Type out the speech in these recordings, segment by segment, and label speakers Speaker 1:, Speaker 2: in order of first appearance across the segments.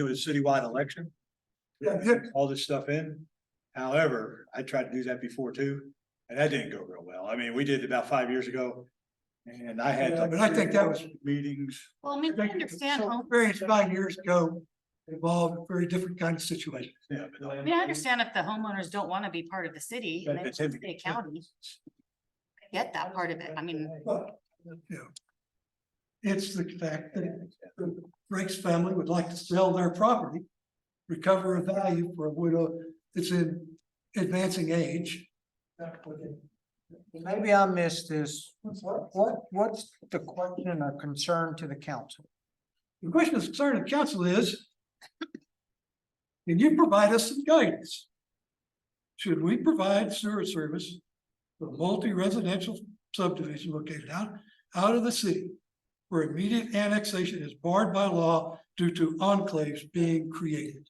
Speaker 1: do a citywide election,
Speaker 2: Yeah,
Speaker 1: all this stuff in. However, I tried to do that before too, and that didn't go real well. I mean, we did it about five years ago. And I had
Speaker 2: Yeah,
Speaker 1: like.
Speaker 2: but I think that was-
Speaker 1: Meetings.
Speaker 3: Well, I mean, I
Speaker 2: Thank you.
Speaker 3: understand,
Speaker 2: So
Speaker 3: home-
Speaker 2: Various nine years ago involved very different kind of situation.
Speaker 1: Yeah, but
Speaker 3: I mean, I understand if the homeowners don't want to be part of the city and
Speaker 1: But
Speaker 3: they
Speaker 1: it's
Speaker 3: want to
Speaker 1: in-
Speaker 3: be a county. I Get that part of it. I mean,
Speaker 2: But, you know, It's the fact that the Rakes family would like to sell their property, recover a value for a widow that's in advancing age.
Speaker 4: Maybe I missed this.
Speaker 2: The
Speaker 4: What, what's the question or concern to the council?
Speaker 2: question of concern of council is, can you provide us some guidance? Should we provide sewer service for multi-residential subdivision located out, out of the city? Where immediate annexation is barred by law due to enclaves being created.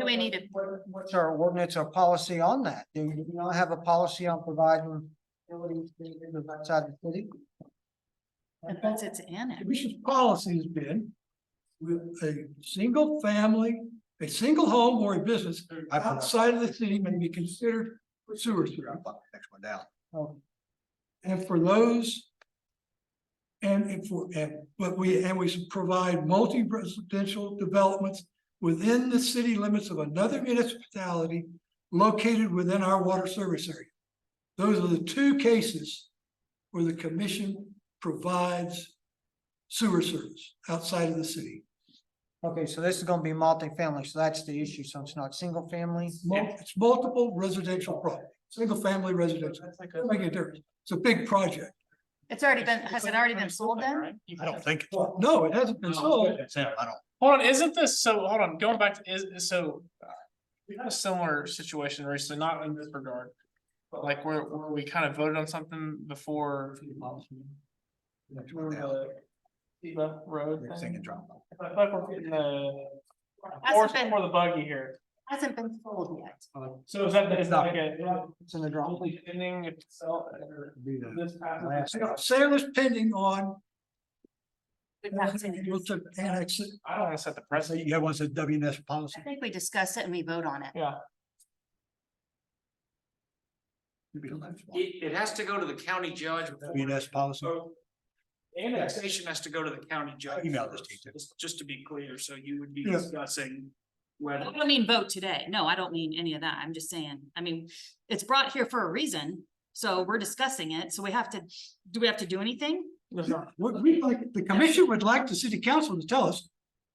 Speaker 3: do we need it?
Speaker 4: What- What's our ordinance or policy on that? Do you not have a policy on providing utilities to individuals outside the city?
Speaker 3: unless it's annexed.
Speaker 2: Commission's policy has been with a single family, a single home or a business
Speaker 1: I put up-
Speaker 2: outside of the city may be considered for sewer
Speaker 1: I
Speaker 2: service.
Speaker 1: put the next one down.
Speaker 4: Oh,
Speaker 2: And for those. And if, for- and, but we, and we should provide multi-residential developments within the city limits of another municipality located within our water service area. Those are the two cases where the commission provides sewer service outside of the city.
Speaker 4: Okay, so this is gonna be multifamily, so that's the issue, so it's not single family?
Speaker 2: Mul- It's multiple residential property, single-family residential,
Speaker 4: That's like
Speaker 2: doesn't make a difference. It's a big project.
Speaker 3: It's already been, has it already been sold then?
Speaker 5: I don't think.
Speaker 2: No, it hasn't been sold.
Speaker 5: Hold on, isn't this, so, hold on, going back to, is, is- so. uh, We had a similar situation recently, not in this regard. But like where, where we kind of voted on something before. Remember the Seatbelt Road
Speaker 1: Next thing
Speaker 5: thing?
Speaker 1: and drop them.
Speaker 5: I feel like we're getting the.
Speaker 3: Hasn't
Speaker 5: Horse
Speaker 3: been-
Speaker 5: before the buggy here.
Speaker 3: Hasn't been sold yet.
Speaker 5: So is that, is that like a,
Speaker 4: It's in the drawing.
Speaker 5: only ending itself or this
Speaker 2: So,
Speaker 5: passes?
Speaker 2: you know, Sale is pending on.
Speaker 3: We've not seen it.
Speaker 2: Annex it.
Speaker 5: I don't wanna set the precedent.
Speaker 1: You got one said WNS
Speaker 3: I
Speaker 1: policy.
Speaker 3: think we discuss it and we vote on it.
Speaker 1: It'd be the next one.
Speaker 6: It, it has to go to the county judge. before-
Speaker 1: WNS policy.
Speaker 6: So Annexation has to go to the county judge.
Speaker 1: Email this to you.
Speaker 6: Just- Just to be clear, so you would be
Speaker 2: Yeah.
Speaker 6: discussing whether.
Speaker 3: I don't mean vote today. No, I don't mean any of that. I'm just saying, I mean, it's brought here for a reason. So we're discussing it. So we have to, do we have to do anything?
Speaker 2: What we like, the commission would like the city council to tell us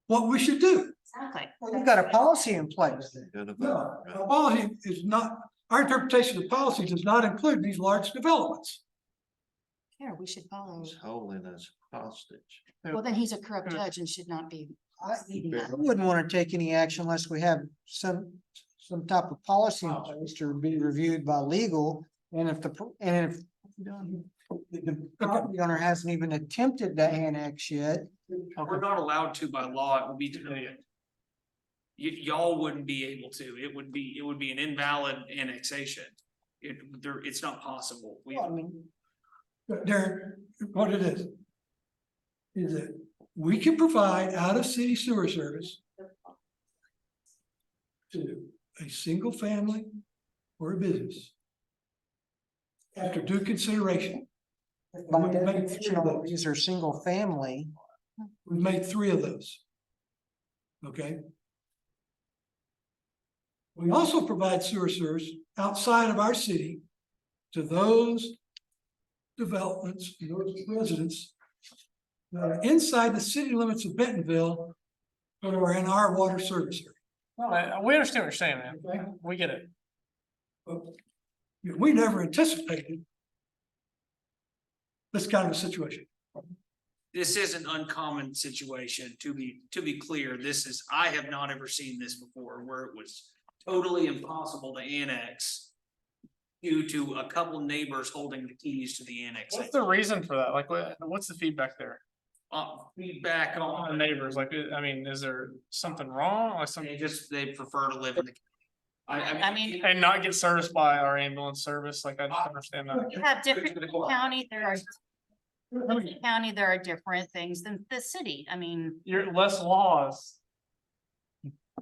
Speaker 2: what we should do.
Speaker 3: Exactly.
Speaker 4: Well, You've got a policy in place.
Speaker 2: No, our policy is not, our interpretation of policy does not include these large developments.
Speaker 3: Here, we should follow.
Speaker 7: holding us hostage.
Speaker 3: Well, then he's a corrupt judge and should not be.
Speaker 4: I
Speaker 3: leading
Speaker 4: I
Speaker 3: that.
Speaker 4: wouldn't wanna take any action unless we have some, some type of policy in place to be reviewed by legal. And if the, pro- and if the property owner hasn't even attempted to annex yet,
Speaker 6: We're not allowed to by law, it would be denied. Y- y'all wouldn't be able to, it would be, it would be an invalid annexation. It, there, it's not possible. We,
Speaker 4: well, I mean,
Speaker 2: But Darren, what it is. Is that we can provide out of city sewer service. To a single family or a business. After due consideration,
Speaker 4: by
Speaker 2: We can make it
Speaker 4: definition,
Speaker 2: three
Speaker 4: all
Speaker 2: votes.
Speaker 4: these are single family.
Speaker 2: we've made three of those. Okay? We also provide sewer service outside of our city to those developments, those residents that are inside the city limits of Bentonville, but are in our water service area.
Speaker 5: No, I- we understand what you're saying, man.
Speaker 2: Okay.
Speaker 5: We get it.
Speaker 2: But We never anticipated this kind of situation.
Speaker 6: this is an uncommon situation, to be, to be clear, this is, I have not ever seen this before, where it was totally impossible to annex due to a couple neighbors holding the keys to the
Speaker 5: What's
Speaker 6: annexation.
Speaker 5: the reason for that? Like, what, what's the feedback there?
Speaker 6: Uh, feedback
Speaker 5: On the
Speaker 6: on,
Speaker 5: neighbors, like, uh, I mean, is there something wrong, like something?
Speaker 6: they just, they prefer to live in the. I,
Speaker 3: I mean,
Speaker 5: And not get serviced by our ambulance service, like I
Speaker 6: Uh,
Speaker 5: don't understand that.
Speaker 3: you have different county, there are. County, there are different things than the city. I mean,
Speaker 5: You're less laws